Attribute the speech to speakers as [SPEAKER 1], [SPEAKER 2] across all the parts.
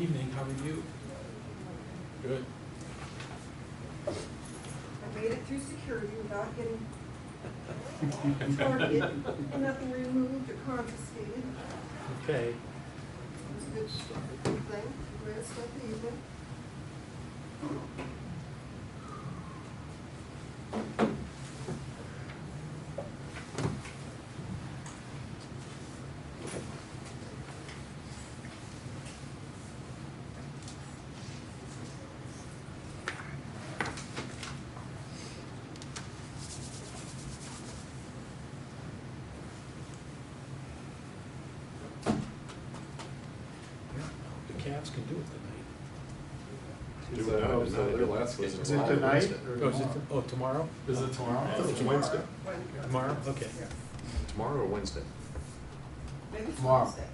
[SPEAKER 1] evening, how are you? Good.
[SPEAKER 2] I made it through security without getting targeted, and nothing removed or confiscated.
[SPEAKER 1] Okay,
[SPEAKER 2] It was a good, good thing, great stuff evening.
[SPEAKER 1] the Cavs can do it
[SPEAKER 3] Is that,
[SPEAKER 4] Oh,
[SPEAKER 3] was that their last was
[SPEAKER 4] Is it tonight or
[SPEAKER 1] tonight. Oh, is it,
[SPEAKER 4] tomorrow?
[SPEAKER 1] oh, tomorrow?
[SPEAKER 3] Is it tomorrow?
[SPEAKER 4] I thought it was Wednesday.
[SPEAKER 1] Tomorrow, okay.
[SPEAKER 3] Tomorrow or Wednesday?
[SPEAKER 2] Maybe it's
[SPEAKER 4] Tomorrow.
[SPEAKER 2] Wednesday.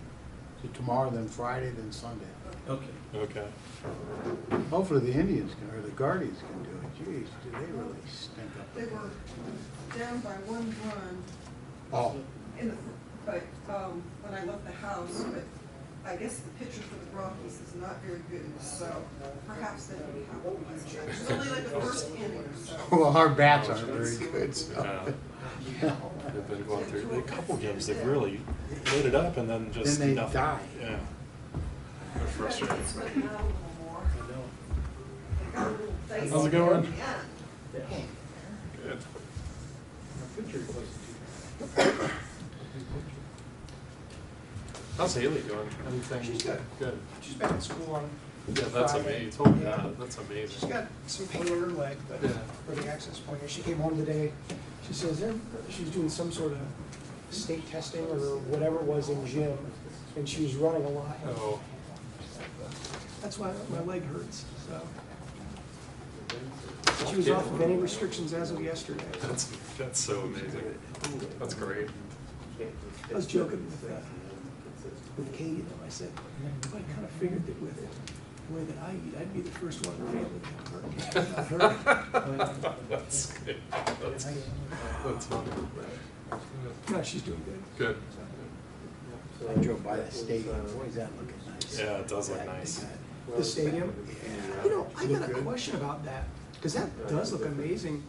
[SPEAKER 4] So tomorrow, then Friday, then Sunday.
[SPEAKER 1] Okay.
[SPEAKER 3] Okay.
[SPEAKER 4] Hopefully the Indians can, or the Guardians can do it. Jeez, do they really stink up
[SPEAKER 2] They
[SPEAKER 4] there?
[SPEAKER 2] were down by one run
[SPEAKER 4] Oh,
[SPEAKER 2] in the, but, um, when I left the house, but I guess the picture for the Rockies is not very good, so perhaps that would happen. It's only like the first inning or so.
[SPEAKER 4] well, our bats aren't very good, so.
[SPEAKER 3] Uh, They've been going through, a couple games, they've really lit it up and then just
[SPEAKER 4] Then they
[SPEAKER 3] nothing.
[SPEAKER 4] die.
[SPEAKER 3] Yeah.
[SPEAKER 2] It's written out a little more.
[SPEAKER 1] I know.
[SPEAKER 2] They got a little dicey
[SPEAKER 3] How's it going?
[SPEAKER 2] at the end.
[SPEAKER 3] Good. How's Haley doing? Anything?
[SPEAKER 5] She's good.
[SPEAKER 3] Good.
[SPEAKER 5] She's back in school on.
[SPEAKER 3] Yeah, that's
[SPEAKER 5] Friday.
[SPEAKER 3] amazing. Totally
[SPEAKER 5] Yeah.
[SPEAKER 3] not. That's
[SPEAKER 5] She's
[SPEAKER 3] amazing.
[SPEAKER 5] got some pain in her leg, but
[SPEAKER 3] Yeah.
[SPEAKER 5] for the access point, she came home today, she says there, she's doing some sort of state testing or whatever it was in gym, and she was running a lot.
[SPEAKER 3] Oh,
[SPEAKER 5] That's why my leg hurts, so. She was off of any restrictions as of yesterday.
[SPEAKER 3] that's, that's so amazing. That's great.
[SPEAKER 5] I was joking with, uh, with Katie though, I said, I kind of figured that with the way that I eat, I'd be the first one in the family to get hurt. Not her.
[SPEAKER 3] That's good. That's, that's funny.
[SPEAKER 5] No, she's doing good.
[SPEAKER 3] Good.
[SPEAKER 4] I drove by the stadium. Boy, is that looking nice.
[SPEAKER 3] Yeah, it does look
[SPEAKER 4] That-
[SPEAKER 3] nice.
[SPEAKER 5] The stadium,
[SPEAKER 4] Yeah.
[SPEAKER 5] you know, I got a question about that, because that does look amazing.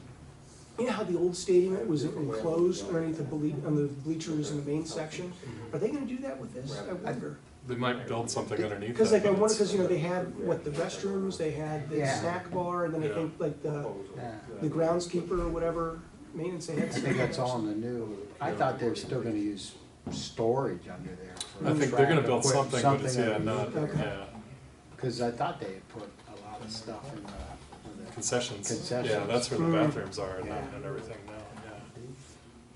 [SPEAKER 5] You know how the old stadium was enclosed underneath the ble- on the bleachers in the main section? Are they gonna do that with this? I wonder.
[SPEAKER 3] They might build something underneath
[SPEAKER 5] Because
[SPEAKER 3] that,
[SPEAKER 5] like I
[SPEAKER 3] but
[SPEAKER 5] wonder,
[SPEAKER 3] it's-
[SPEAKER 5] because you know, they had, what, the restrooms, they had the
[SPEAKER 4] Yeah.
[SPEAKER 5] snack bar, and then I
[SPEAKER 3] Yeah.
[SPEAKER 5] think like the,
[SPEAKER 4] Yeah.
[SPEAKER 5] the groundskeeper or whatever, maintenance, they had.
[SPEAKER 4] I think that's all in the new. I thought they were still gonna use storage under there. for
[SPEAKER 3] I think they're gonna build
[SPEAKER 4] track equip-
[SPEAKER 3] something, but it's, yeah,
[SPEAKER 4] underneath
[SPEAKER 3] not,
[SPEAKER 4] there.
[SPEAKER 3] yeah,
[SPEAKER 4] Cause I thought they had put a lot of stuff in the, in the-
[SPEAKER 3] concessions, yeah,
[SPEAKER 4] Concessions.
[SPEAKER 3] that's where the
[SPEAKER 5] Hmm.
[SPEAKER 3] bathrooms are and,
[SPEAKER 4] Yeah.
[SPEAKER 3] and everything now,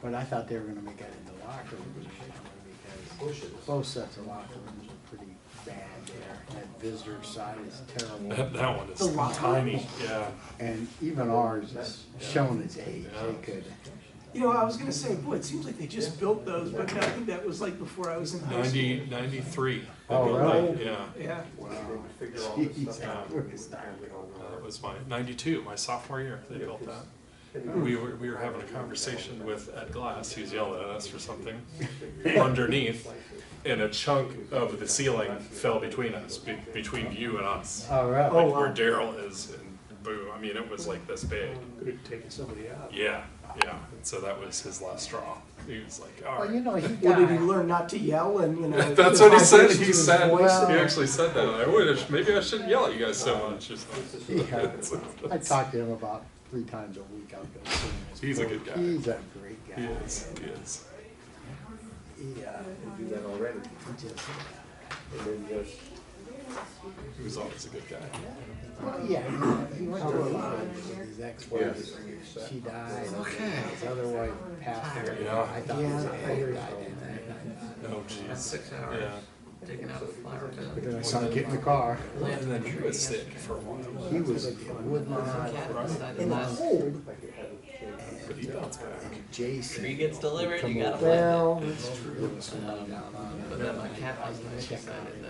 [SPEAKER 4] but I thought they were gonna make that into locker rooms. Because both sets of locker rooms are pretty bad there. That visitor side is
[SPEAKER 3] yeah. That,
[SPEAKER 4] terrible.
[SPEAKER 3] that one
[SPEAKER 5] The locker
[SPEAKER 3] is tiny, yeah,
[SPEAKER 4] And even ours is showing its age. They
[SPEAKER 3] Yeah.
[SPEAKER 4] could,
[SPEAKER 5] You know, I was gonna say, boy, it seems like they just built those, but I think that was like before I was in high school.
[SPEAKER 3] ninety, ninety-three.
[SPEAKER 4] Oh, really?
[SPEAKER 3] Yeah,
[SPEAKER 5] Yeah.
[SPEAKER 4] wow.
[SPEAKER 6] Jeez, that would be
[SPEAKER 3] that Uh, was my, ninety-two, my sophomore year, they built that. We were, we were having a conversation with Ed Glass, who's yelled at us for something underneath, and a chunk of the ceiling fell between us, be- between you and us.
[SPEAKER 4] All right.
[SPEAKER 3] Like where Daryl is, and boo, I mean, it was like this big.
[SPEAKER 6] Could have taken somebody out.
[SPEAKER 3] Yeah, yeah. And so that was his last straw. He was like, all
[SPEAKER 4] Well, you
[SPEAKER 3] right.
[SPEAKER 4] know, he
[SPEAKER 5] Or did he
[SPEAKER 4] got,
[SPEAKER 5] learn not to yell and, you know?
[SPEAKER 3] That's what he said.
[SPEAKER 5] vibrations in
[SPEAKER 3] He
[SPEAKER 5] his
[SPEAKER 3] said,
[SPEAKER 5] voice?
[SPEAKER 4] Well-
[SPEAKER 3] he actually said that. I wish, maybe I shouldn't yell at you guys so much. or something.
[SPEAKER 4] yeah, I talk to him about three times a week. I'll go see him.
[SPEAKER 3] He's a good guy.
[SPEAKER 4] He's a great guy. uh,
[SPEAKER 3] He is, he is.
[SPEAKER 4] Yeah.
[SPEAKER 6] They do that already, and then just.
[SPEAKER 3] He was always a good guy.
[SPEAKER 4] Well, yeah, he went through a lot with his ex-wife. She died, his other wife passed away.
[SPEAKER 3] Yeah.
[SPEAKER 4] I thought his aunt died.
[SPEAKER 3] Oh, jeez.
[SPEAKER 7] six hours
[SPEAKER 3] Yeah.
[SPEAKER 7] taken out of the flower
[SPEAKER 4] But
[SPEAKER 7] bed.
[SPEAKER 4] then I saw him get in the car.
[SPEAKER 3] And then he was sick for a while,
[SPEAKER 4] He was in Woodlawn,
[SPEAKER 7] Cat inside the
[SPEAKER 5] In the
[SPEAKER 7] last.
[SPEAKER 5] cold,
[SPEAKER 3] but he bounced back.
[SPEAKER 4] Jason.
[SPEAKER 7] Tree gets delivered, you gotta. plant it.
[SPEAKER 4] Well, that's true. There was somebody down on-
[SPEAKER 7] But then my cat was nice inside it, though.